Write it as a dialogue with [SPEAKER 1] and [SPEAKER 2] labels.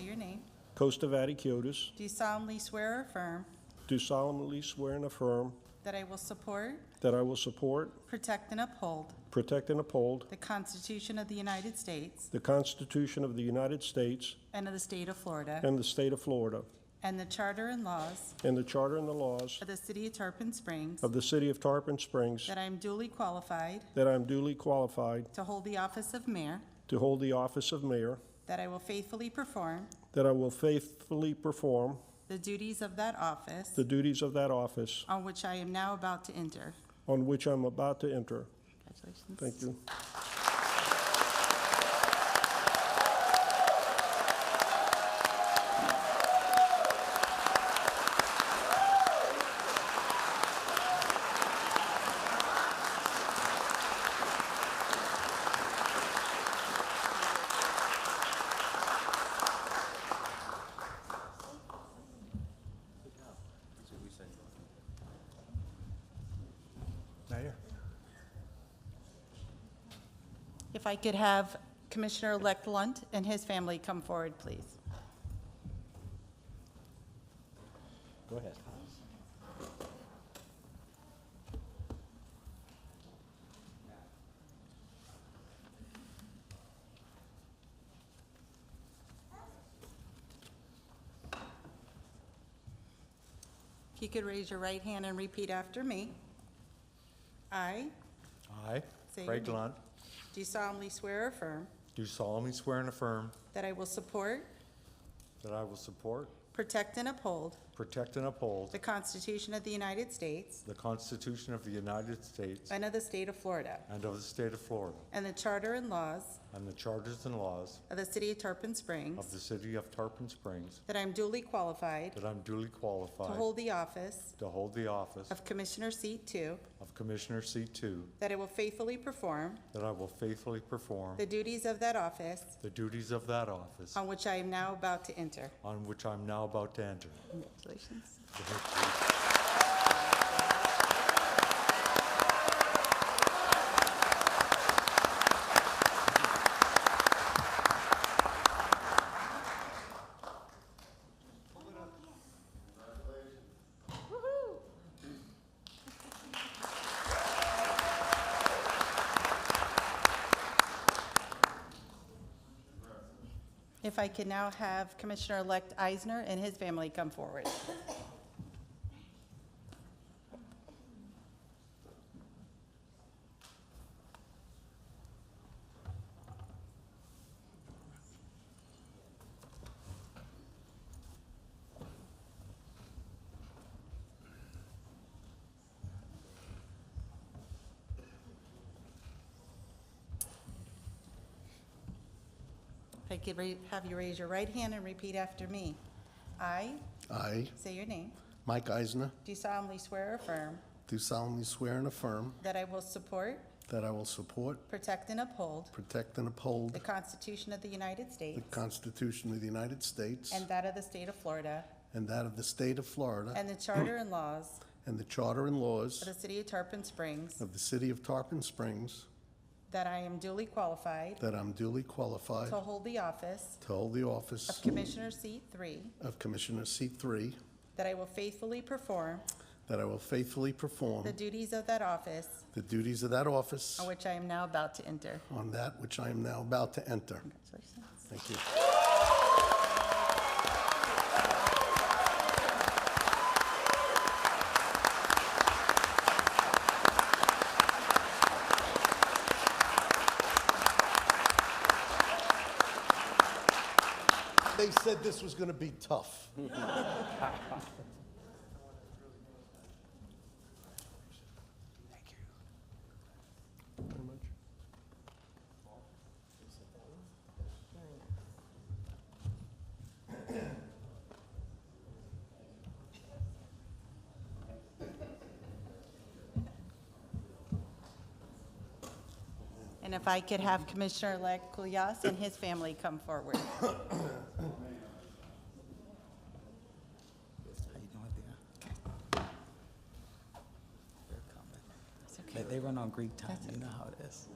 [SPEAKER 1] your name,
[SPEAKER 2] Costavati Kiotis,
[SPEAKER 1] do solemnly swear or affirm
[SPEAKER 2] do solemnly swear and affirm
[SPEAKER 1] that I will support,
[SPEAKER 2] that I will support,
[SPEAKER 1] protect, and uphold
[SPEAKER 2] protect, and uphold
[SPEAKER 1] the Constitution of the United States
[SPEAKER 2] the Constitution of the United States
[SPEAKER 1] and of the state of Florida,
[SPEAKER 2] and the state of Florida,
[SPEAKER 1] and the charter and laws
[SPEAKER 2] and the charter and the laws
[SPEAKER 1] of the city of Tarpon Springs,
[SPEAKER 2] of the city of Tarpon Springs,
[SPEAKER 1] that I am duly qualified
[SPEAKER 2] that I am duly qualified
[SPEAKER 1] to hold the office of mayor,
[SPEAKER 2] to hold the office of mayor,
[SPEAKER 1] that I will faithfully perform
[SPEAKER 2] that I will faithfully perform
[SPEAKER 1] the duties of that office
[SPEAKER 2] the duties of that office
[SPEAKER 1] on which I am now about to enter.
[SPEAKER 2] on which I'm about to enter.
[SPEAKER 1] Congratulations.
[SPEAKER 2] Thank you. Mayor?
[SPEAKER 1] If I could have Commissioner-elect Lunt and his family come forward, please.
[SPEAKER 2] Go ahead.
[SPEAKER 1] If you could raise your right hand and repeat after me. I
[SPEAKER 3] I,
[SPEAKER 1] Say your
[SPEAKER 3] Craig
[SPEAKER 1] name.
[SPEAKER 3] Lunt,
[SPEAKER 1] do solemnly swear or affirm
[SPEAKER 3] do solemnly swear and affirm
[SPEAKER 1] that I will support,
[SPEAKER 3] that I will support,
[SPEAKER 1] protect, and uphold
[SPEAKER 3] protect, and uphold
[SPEAKER 1] the Constitution of the United States
[SPEAKER 3] the Constitution of the United States
[SPEAKER 1] and of the state of Florida,
[SPEAKER 3] and of the state of Florida,
[SPEAKER 1] and the charter and laws
[SPEAKER 3] and the charters and laws
[SPEAKER 1] of the city of Tarpon
[SPEAKER 3] of the
[SPEAKER 1] Springs,
[SPEAKER 3] city of Tarpon Springs,
[SPEAKER 1] that I am duly qualified
[SPEAKER 3] that I'm duly
[SPEAKER 1] to
[SPEAKER 3] qualified
[SPEAKER 1] hold the office
[SPEAKER 3] to hold the office
[SPEAKER 1] of Commissioner Seat Two,
[SPEAKER 3] of Commissioner C2,
[SPEAKER 1] that I will faithfully perform
[SPEAKER 3] that I will faithfully perform
[SPEAKER 1] the duties of that office
[SPEAKER 3] the duties of that office
[SPEAKER 1] on which I am now about to enter.
[SPEAKER 3] on which I'm now about to enter.
[SPEAKER 1] Congratulations. If I could now have Commissioner-elect Eisner and his family come forward. If I could ra- have you raise your right hand and repeat after me. I,
[SPEAKER 4] I,
[SPEAKER 1] say your name,
[SPEAKER 4] Mike Eisner,
[SPEAKER 1] do solemnly swear or affirm
[SPEAKER 4] do solemnly swear and affirm
[SPEAKER 1] that I will support,
[SPEAKER 4] that I will support,
[SPEAKER 1] protect, and uphold
[SPEAKER 4] protect, and uphold
[SPEAKER 1] the Constitution of the United
[SPEAKER 4] the
[SPEAKER 1] States
[SPEAKER 4] Constitution of the United States
[SPEAKER 1] and that of the state of Florida
[SPEAKER 4] and that of the state of Florida
[SPEAKER 1] and the charter and laws
[SPEAKER 4] and the charter and laws
[SPEAKER 1] of the city of Tarpon Springs,
[SPEAKER 4] of the city of Tarpon Springs,
[SPEAKER 1] that I am duly qualified
[SPEAKER 4] that I'm duly qualified
[SPEAKER 1] to hold the office
[SPEAKER 4] to hold the
[SPEAKER 1] of
[SPEAKER 4] office
[SPEAKER 1] Commissioner Seat Three,
[SPEAKER 4] of Commissioner C3,
[SPEAKER 1] that I will faithfully perform
[SPEAKER 4] that I will faithfully perform
[SPEAKER 1] the duties of that office
[SPEAKER 4] the duties of that office
[SPEAKER 1] on which I am now about to enter.
[SPEAKER 4] on that which I am now about to enter.
[SPEAKER 1] Congratulations.
[SPEAKER 4] Thank you. They said this was going to be tough.
[SPEAKER 1] And if I could have Commissioner-elect Kulyas and his family come forward.
[SPEAKER 5] How you doing there? They're coming. They, they run on Greek time, you know how it is.